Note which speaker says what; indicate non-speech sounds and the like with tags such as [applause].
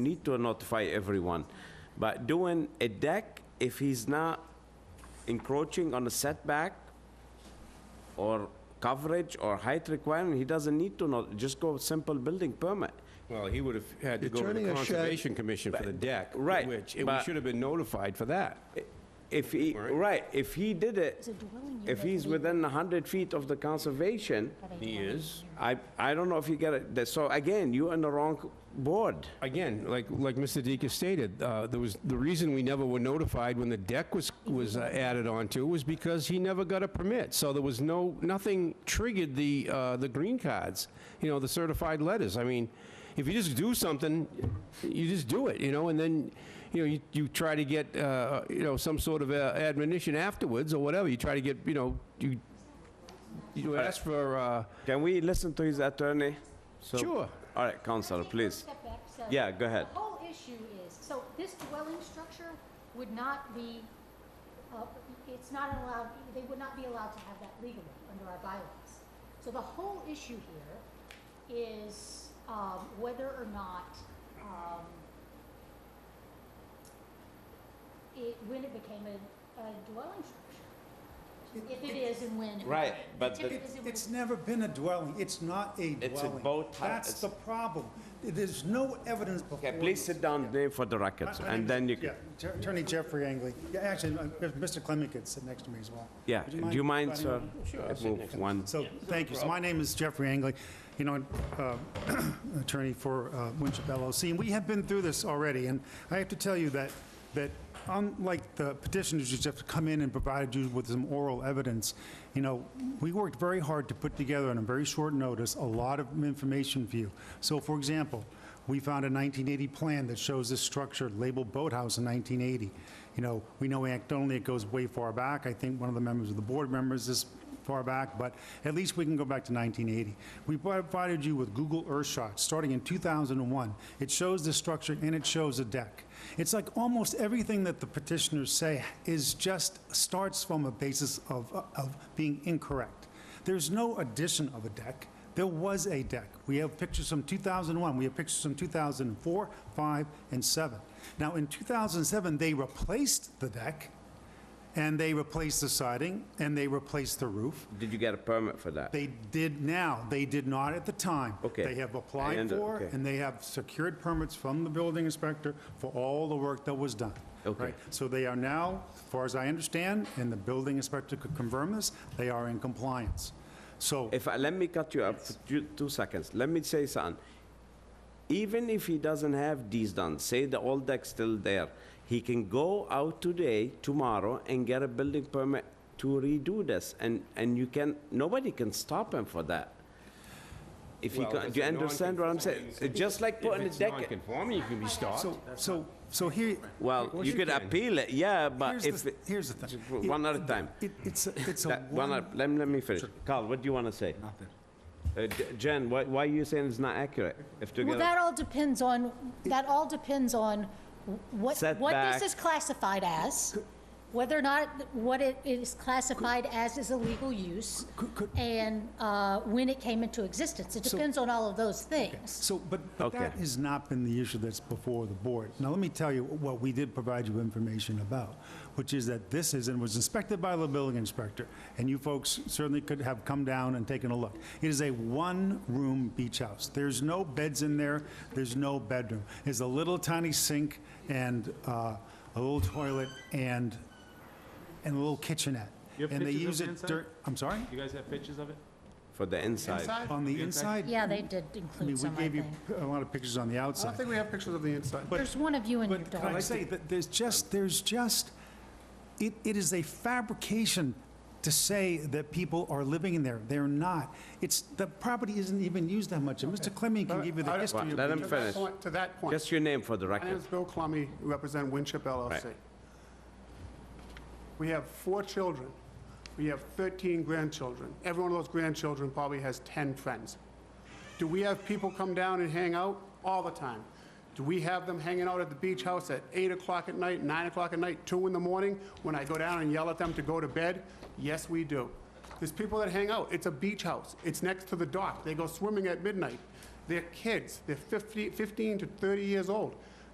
Speaker 1: need to notify everyone. But doing a deck, if he's not encroaching on a setback or coverage or height requirement, he doesn't need to not, just go with simple building permit.
Speaker 2: Well, he would have had to
Speaker 3: You're
Speaker 2: go to
Speaker 3: turning
Speaker 2: the
Speaker 3: a shed-
Speaker 2: Conservation Commission for the deck.
Speaker 1: Right,
Speaker 2: Which, and we
Speaker 1: but-
Speaker 2: should have been notified for that.
Speaker 1: If he, right, if he did it,
Speaker 4: It's a dwelling unit.
Speaker 1: if he's within 100 feet of the conservation,
Speaker 2: He is.
Speaker 1: I, I don't know if you get it. That- So again, you're on the wrong board.
Speaker 2: Again, like, like Mr. Deacon stated, uh, there was, the reason we never were notified when the deck was, was uh, added onto was because he never got a permit. So there was no, nothing triggered the, uh, the green cards, you know, the certified letters. I mean, if you just do something, you just do it, you know, and then, you know, you, you try to get, uh, you know, some sort of uh, admonition afterwards or whatever. You try to get, you know, you, you ask for, uh,
Speaker 1: Can we listen to his attorney? So-
Speaker 2: Sure.
Speaker 1: All right, counselor, please.
Speaker 4: Step back, so
Speaker 1: Yeah, go ahead.
Speaker 4: The whole issue is, so this dwelling structure would not be, uh, it's not allowed, they would not be allowed to have that legally under our bylaws. So the whole issue here is um, whether or not um, it, when it became a a dwelling structure. If it is and when. it-
Speaker 1: Right, but the-
Speaker 4: If it
Speaker 3: It-
Speaker 4: is and when.
Speaker 3: It's never been a dwelling, it's not a dwelling.
Speaker 1: It's a boat house.
Speaker 3: That's the problem. There's no evidence before.
Speaker 1: Okay, please
Speaker 3: us.
Speaker 1: sit down, name for the record,
Speaker 3: My- my name
Speaker 1: and
Speaker 3: is-
Speaker 1: then you can.
Speaker 3: yeah, Jer- Attorney Jeffrey Angley. Yeah, actually, uh, Mr. Clement could sit next to me as well.
Speaker 1: Yeah,
Speaker 3: Would
Speaker 1: do you mind,
Speaker 3: if I-
Speaker 1: sir? Move one.
Speaker 3: So, thank you. So my name is Jeffrey Angley, you know, uh, [clears throat] attorney for uh, Winship LLC. And we have been through this already, and I have to tell you that, that unlike the petitioners who just come in and provided you with some oral evidence, you know, we worked very hard to put together on a very short notice a lot of information for you. So, for example, we found a 1980 plan that shows this structure labeled boathouse in 1980. You know, we know anecdotally it goes way far back. I think one of the members of the board members is far back, but at least we can go back to 1980. We provided you with Google Earth shots starting in 2001. It shows the structure and it shows a deck. It's like almost everything that the petitioners say is just, starts from a basis of, of being incorrect. There's no addition of a deck. There was a deck. We have pictures from 2001, we have pictures from 2004, 5, and 7. Now, in 2007, they replaced the deck, and they replaced the siding, and they replaced the roof.
Speaker 1: Did you get a permit for that?
Speaker 3: They did now, they did not at the time.
Speaker 1: Okay.
Speaker 3: They have
Speaker 1: I
Speaker 3: applied
Speaker 1: under-
Speaker 3: for,
Speaker 1: okay.
Speaker 3: and they have secured permits from the building inspector for all the work that was done.
Speaker 1: Okay.
Speaker 3: right? So they are now, as far as I understand, and the building inspector could confirm this, they are in compliance. So,
Speaker 1: If, I- let me cut you up for two, two seconds. Let me say something. Even if he doesn't have these done, say the old deck's still there, he can go out today, tomorrow, and get a building permit to redo this, and, and you can, nobody can stop him for that. If you,
Speaker 2: Well,
Speaker 1: can-
Speaker 2: if
Speaker 1: do you
Speaker 2: it's a
Speaker 1: understand what I'm saying?
Speaker 2: non-conforming-
Speaker 1: It's Just like
Speaker 2: If
Speaker 1: putting a
Speaker 2: it's
Speaker 1: deck,
Speaker 2: non-conforming, you can be stopped.
Speaker 3: so, so, so here,
Speaker 1: well,
Speaker 2: course
Speaker 1: you
Speaker 2: you
Speaker 1: could
Speaker 2: can.
Speaker 1: appeal it, yeah, but
Speaker 3: here's
Speaker 1: if,
Speaker 3: the, here's the thing. It-
Speaker 1: one at a time.
Speaker 3: it- It's, a- it's a
Speaker 1: That- One,
Speaker 3: one...
Speaker 1: up. let me, let me finish. Carl, what do you want to say? Nothing. Jen, why, why are you saying it's not accurate? If to
Speaker 4: Well,
Speaker 1: get,
Speaker 4: that all depends on, that all depends on what, what
Speaker 1: Setback.
Speaker 4: this is classified as, whether or not what it is classified as is a legal use,
Speaker 3: Could- could-
Speaker 4: and uh, when it came into existence. It
Speaker 3: So-
Speaker 4: depends on all of those things.
Speaker 3: So, but, but
Speaker 1: Okay.
Speaker 3: that has not been the issue that's before the board. Now, let me tell you what we did provide you information about, which is that this is, and was inspected by the building inspector, and you folks certainly could have come down and taken a look. It is a one-room beach house. There's no beds in there, there's no bedroom. There's a little tiny sink and uh, a little toilet and, and a little kitchenette.
Speaker 5: You have
Speaker 3: And they
Speaker 5: pictures of
Speaker 3: use
Speaker 5: the
Speaker 3: it
Speaker 5: inside?
Speaker 3: dur- I'm sorry?
Speaker 5: You guys have pictures of it?
Speaker 1: for the inside?
Speaker 3: On the inside?
Speaker 4: Yeah, they did
Speaker 3: I mean,
Speaker 4: include
Speaker 3: we
Speaker 4: some, I
Speaker 3: gave you
Speaker 4: think.
Speaker 3: p- a lot of pictures on the outside.
Speaker 6: I don't think we have pictures of the inside.
Speaker 4: There's one of you and your
Speaker 3: But can I
Speaker 4: dog.
Speaker 3: say that there's just, there's just, it, it is a fabrication to say that people are living in there. They're not. It's, the property isn't even used that much. And Mr. Clemmie can give you the
Speaker 6: I-
Speaker 3: history.
Speaker 1: Well,
Speaker 3: of
Speaker 1: let
Speaker 3: the-
Speaker 1: him
Speaker 6: To that
Speaker 1: finish.
Speaker 6: point- To that point,
Speaker 1: Just your name for the
Speaker 6: my name
Speaker 1: record.
Speaker 6: is Bill Clummy, represent Winship LLC.
Speaker 1: Right.
Speaker 6: We have four children. We have 13 grandchildren. Every one of those grandchildren probably has 10 friends. Do we have people come down and hang out? All the time. Do we have them hanging out at the beach house at 8 o'clock at night, 9 o'clock at night, 2 in the morning, when I go down and yell at them to go to bed? Yes, we do. There's people that hang out. It's a beach house. It's next to the dock. They go swimming at midnight. They're kids, they're 50 15 to 30 years old.